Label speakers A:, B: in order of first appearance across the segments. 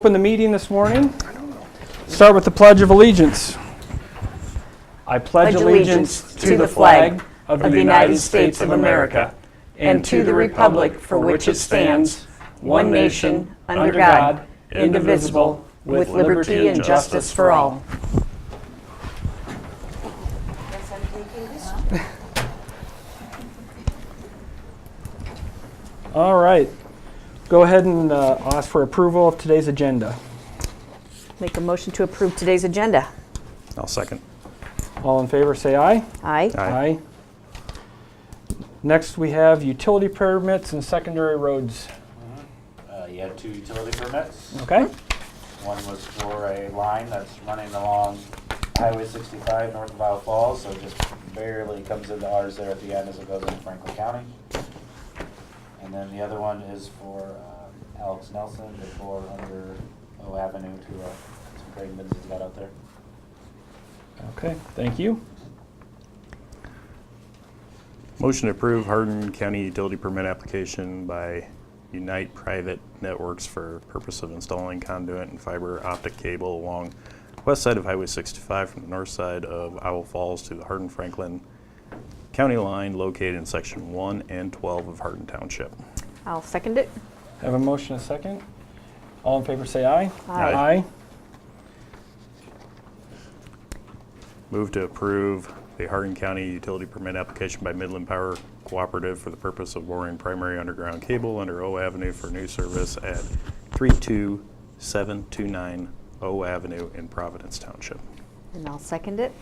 A: Open the meeting this morning. Start with the Pledge of Allegiance. I pledge allegiance to the flag of the United States of America and to the republic for which it stands, one nation, under God, indivisible, with liberty and justice for all. All right. Go ahead and uh, ask for approval of today's agenda.
B: Make a motion to approve today's agenda.
C: I'll second.
A: All in favor, say aye.
B: Aye.
A: Aye. Next, we have utility permits and secondary roads.
D: Uh, You had two utility permits.
A: Okay?
D: One was for a line that's running along Highway 65 north of Isle Falls, so just barely comes into ours there at the end as it goes into Franklin County. And then the other one is for um, Alex Nelson before under O Avenue to uh, some grain bins he's got out there.
A: Okay, thank you.
C: Motion to approve Hardin County utility permit application by Unite Private Networks for purpose of installing conduit and fiber optic cable along west side of Highway 65 from the north side of Owl Falls to the Hardin Franklin County line located in section 1 and 12 of Hardin Township.
B: I'll second it.
A: Have a motion, a second. All in favor, say aye.
C: Aye.
A: Aye.
C: Move to approve the Hardin County utility permit application by Midland Power Cooperative for the purpose of boring primary underground cable under O Avenue for new service at 32729 O Avenue in Providence Township.
B: And I'll second it.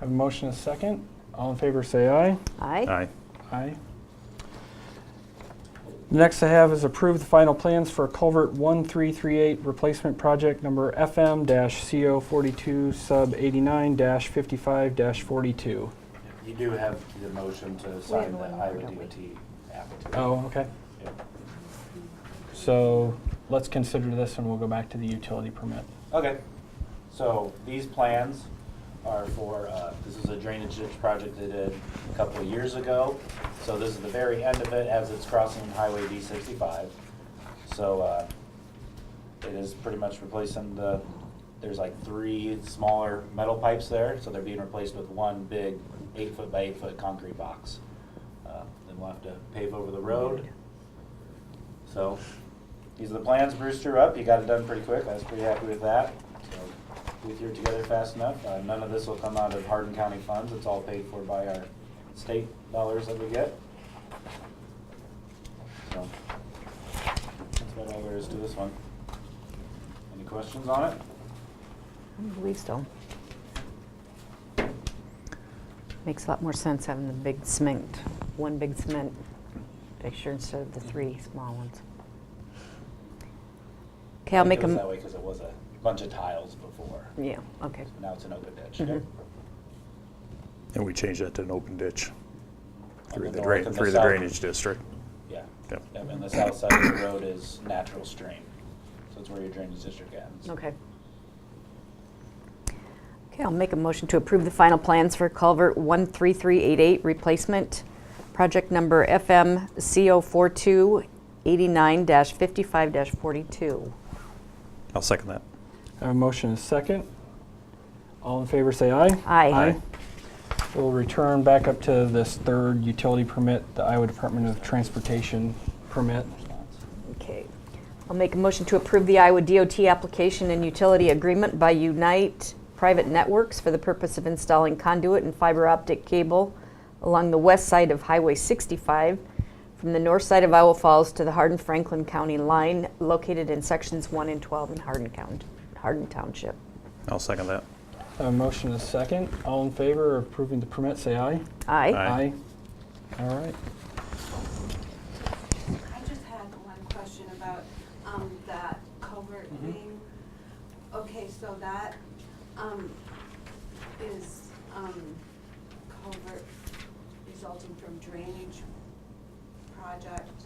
A: Have a motion, a second. All in favor, say aye.
B: Aye.
C: Aye.
A: Aye. Next I have is approve the final plans for culvert 1338 replacement project number FM-CO42 sub 89-55-42.
D: You do have the motion to sign the
B: one more,
D: Iowa
B: don't we?
D: DOT app.
A: Oh, okay.
D: Yep.
A: So let's consider this and we'll go back to the utility permit.
D: Okay, so these plans are for, uh, this is a drainage ditch project they did a couple of years ago. So this is the very end of it as it's crossing Highway D sixty-five. So uh, it is pretty much replacing the, there's like three smaller metal pipes there, so they're being replaced with one big eight-foot by eight-foot concrete box. Uh, Then we'll have to pave over the road. So, these are the plans, Bruce drew up, you got it done pretty quick, I was pretty happy with that. So We threw it together fast enough, uh, none of this will come out of Hardin County funds, it's all paid for by our state dollars that we get. So, that's about all there is to this one. Any questions on it?
B: I don't believe so. Makes a lot more sense having the big cement, one big cement picture instead of the three small ones. Okay, I'll make
D: It was that
B: a,
D: way because it was a bunch of tiles before,
B: yeah, okay.
D: now it's an open ditch.
B: Mhm.
C: And we changed that to an open ditch through
D: On
C: the
D: north
C: drain,
D: and
C: through the
D: south.
C: drainage district.
D: Yeah.
C: Yep.
D: Yep, And the south side of the road is natural stream, so it's where your drainage district ends.
B: Okay. Okay, I'll make a motion to approve the final plans for culvert 13388 replacement, project number FM CO4289-55-42.
C: I'll second that.
A: I have a motion, a second. All in favor, say aye.
B: Aye.
A: We'll return back up to this third utility permit, the Iowa Department of Transportation permit.
B: Okay. I'll make a motion to approve the Iowa DOT application and utility agreement by Unite Private Networks for the purpose of installing conduit and fiber optic cable along the west side of Highway 65 from the north side of Iowa Falls to the Hardin Franklin County line located in sections 1 and 12 in Hardin County, Hardin Township.
C: I'll second that.
A: I have a motion and a second. All in favor of approving the permit, say aye.
B: Aye.
C: Aye.
A: All right.
E: I just had one question about um, that culvert thing. Okay, so that um, is um, culvert resulting from drainage project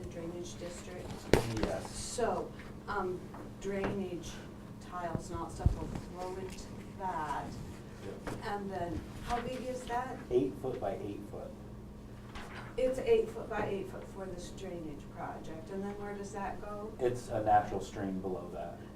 E: in drainage district.
D: Yes.
E: So um, drainage tiles and all that stuff will flow into that. And then, how big is that?
D: Eight foot by eight foot.
E: It's eight foot by eight foot for this drainage project, and then where does that go?
D: It's a natural stream below that.